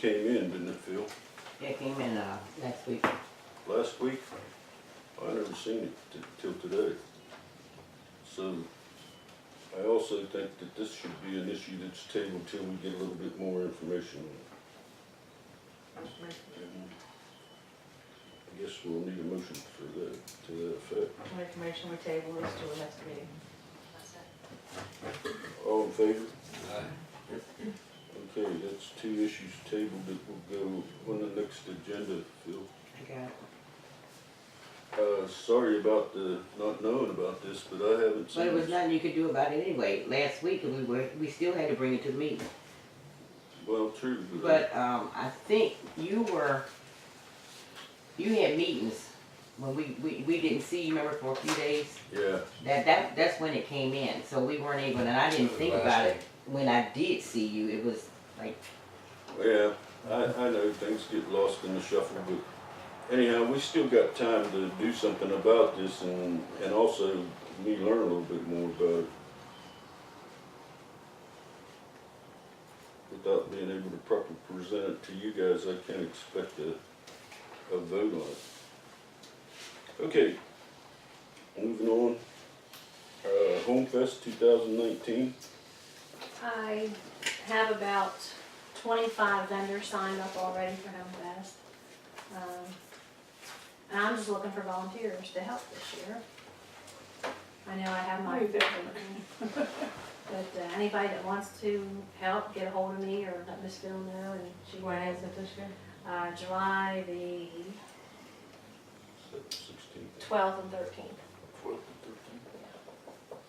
Came in, didn't it, Phil? It came in, uh, next week. Last week? I never seen it t- till today. So, I also think that this should be an issue that's tabled till we get a little bit more information. on it. And I guess we'll need a motion for that, to that effect. Information we table is to the next meeting. All in favor? Okay, that's two issues tabled that will go on the next agenda, Phil. I got it. Uh, sorry about the, not knowing about this, but I haven't seen But it. it was nothing you could do about it anyway. Last week, we were, we still had to bring it to the meeting. Well, true, but But, um, I think you were, you had meetings when we, we, we didn't see you, remember, for a few days? yeah, That, that, that's when it came in, so we weren't able, and I didn't think about it. When I did see you, it was like, yeah, I, I know things get lost in the shuffle, but anyhow, we still got time to do something about this and, and also me learn a little bit more about it. Without being able to properly present it to you guys, I can't expect a, a vote on it. Okay, moving on, uh, Home Fest two thousand nineteen, I have about twenty-five vendors signed up already for Home Fest. Um, And I'm just looking for volunteers to help this year. I know I have my, Move but it. uh, anybody that wants to help, get a hold of me or let Miss Phil know and she When was, is it this year? uh, July the sixteen. Twelfth and thirteenth. Twelve to thirteen.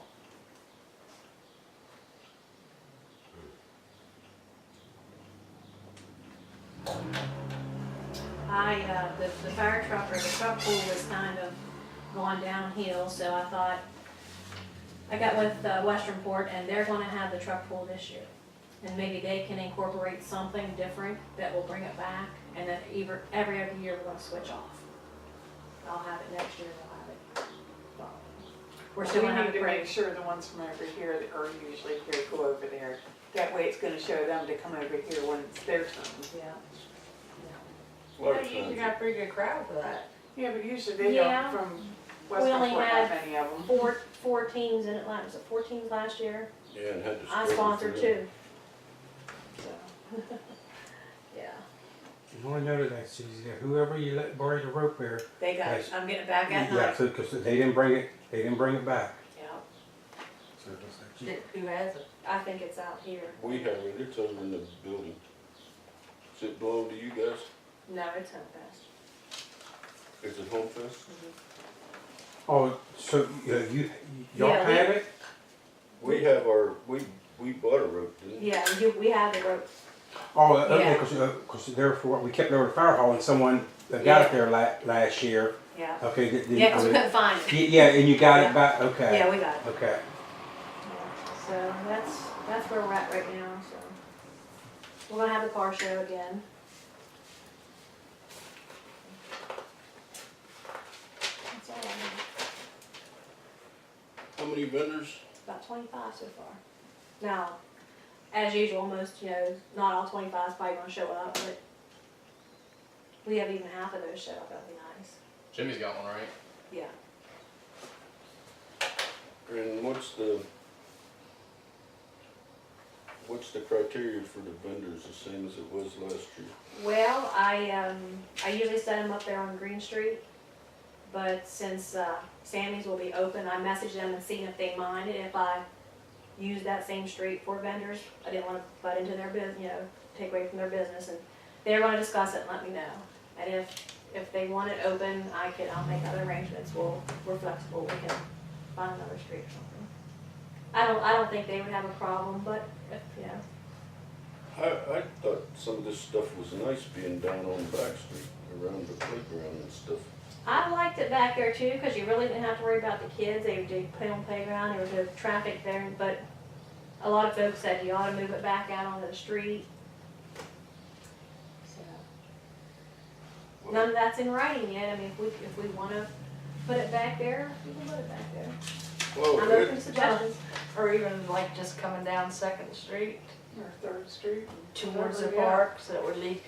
I, uh, the, the fire truck or the truck pool was kind of going downhill, so I thought, I got with, uh, Westernport and they're gonna have the truck pool this year. And maybe they can incorporate something different that will bring it back and then either, every other year we're gonna switch off. I'll have it next year, we'll have it. We're We still gonna need have a to make parade. sure the ones from over here that are usually here go over there. That way it's gonna show them to come over here when it's their turn. Yeah. Well, you usually got a pretty good crowd for that. Yeah, but usually they don't Yeah. from We only Western Fort, not had- many of them. Four, four teams in Atlanta, was it four teams last year? Yeah, and had to. I struggle sponsored for that. two. So, yeah. You want to know that Susie, that whoever you let borrow the rope there, They got, it. I'm getting it back at yeah, night. because they didn't bring it, they didn't bring it back. Yeah, So it's like, gee, Th- Who has it? I think it's out here. We have it, it's over in the building. Does it belong to you guys? No, it's not fast. Is it Home Fest? Oh, so you, you y'all Yeah, we- had it? We have our, we, we bought a rope, didn't we? Yeah, you, we have the rope. Oh, okay, Yeah. because therefore we kept it over the fire hall and someone that got it there la- last year. Yeah. Okay. did- did- Yeah, 'cause we y- couldn't find it. yeah, and you got Yeah. it back. Okay. Yeah, we got it. Okay. So that's, that's where we're at right now, so. We're gonna have the car show again. That's all I know. How many vendors? About twenty-five so far. Now, as usual, most, you know, not all twenty-five is probably gonna show up, but we have even half of those show up, that'd be nice. Jimmy's got one, right? Yeah. And what's the, what's the criteria for the vendors, the same as it was last year? Well, I, um, I usually set them up there on Green Street, but since, uh, Sammy's will be open, I messaged them and seen if they minded if I used that same street for vendors. I didn't wanna butt into their business, you know, take away from their business, and they were gonna discuss it and let me know. And if, if they want it open, I can, I'll make other arrangements, we'll, we're flexible, we can find another street or something. I don't, I don't think they would have a problem, but, if, you know, I, I thought some of this stuff was nice being down on Back Street around the playground and stuff. I liked it back there too, because you really didn't have to worry about the kids. They did play on playground, there was no traffic there, but a lot of folks said you ought to move it back out onto the street. So, None of that's in writing yet, I mean, if we, if we wanna put it back there, we can put it back there. Well, I'm it- open to suggestions. Or even like just coming down Second Street or Third Street. towards the Whatever, yeah. Oh, park, so that would leave people